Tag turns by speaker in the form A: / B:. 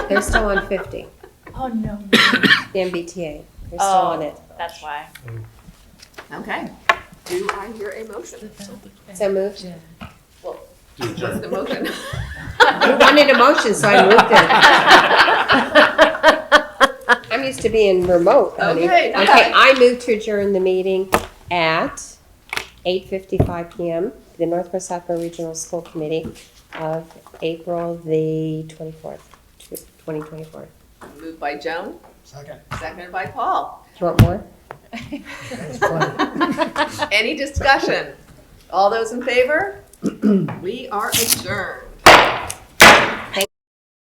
A: They're still on fifty,
B: Oh, no.
A: the MBTA. They're still
B: Oh,
A: on it.
B: That's why.
C: Okay. Do I hear a motion?
A: So moved.
D: To
C: What's
D: adjourn.
C: the motion?
A: You wanted a motion, so I moved it. I'm used to being remote, honey.
C: Okay.
A: Okay, I move to adjourn the meeting at eight fifty-five PM, the Northwest Saco Regional School Committee of April the twenty-fourth, twenty twenty-four.
C: Moved by Joan,
E: Second.
C: seconded by Paul.
A: Do you want more?
E: That's plenty.
C: Any discussion? All those in favor? We are adjourned.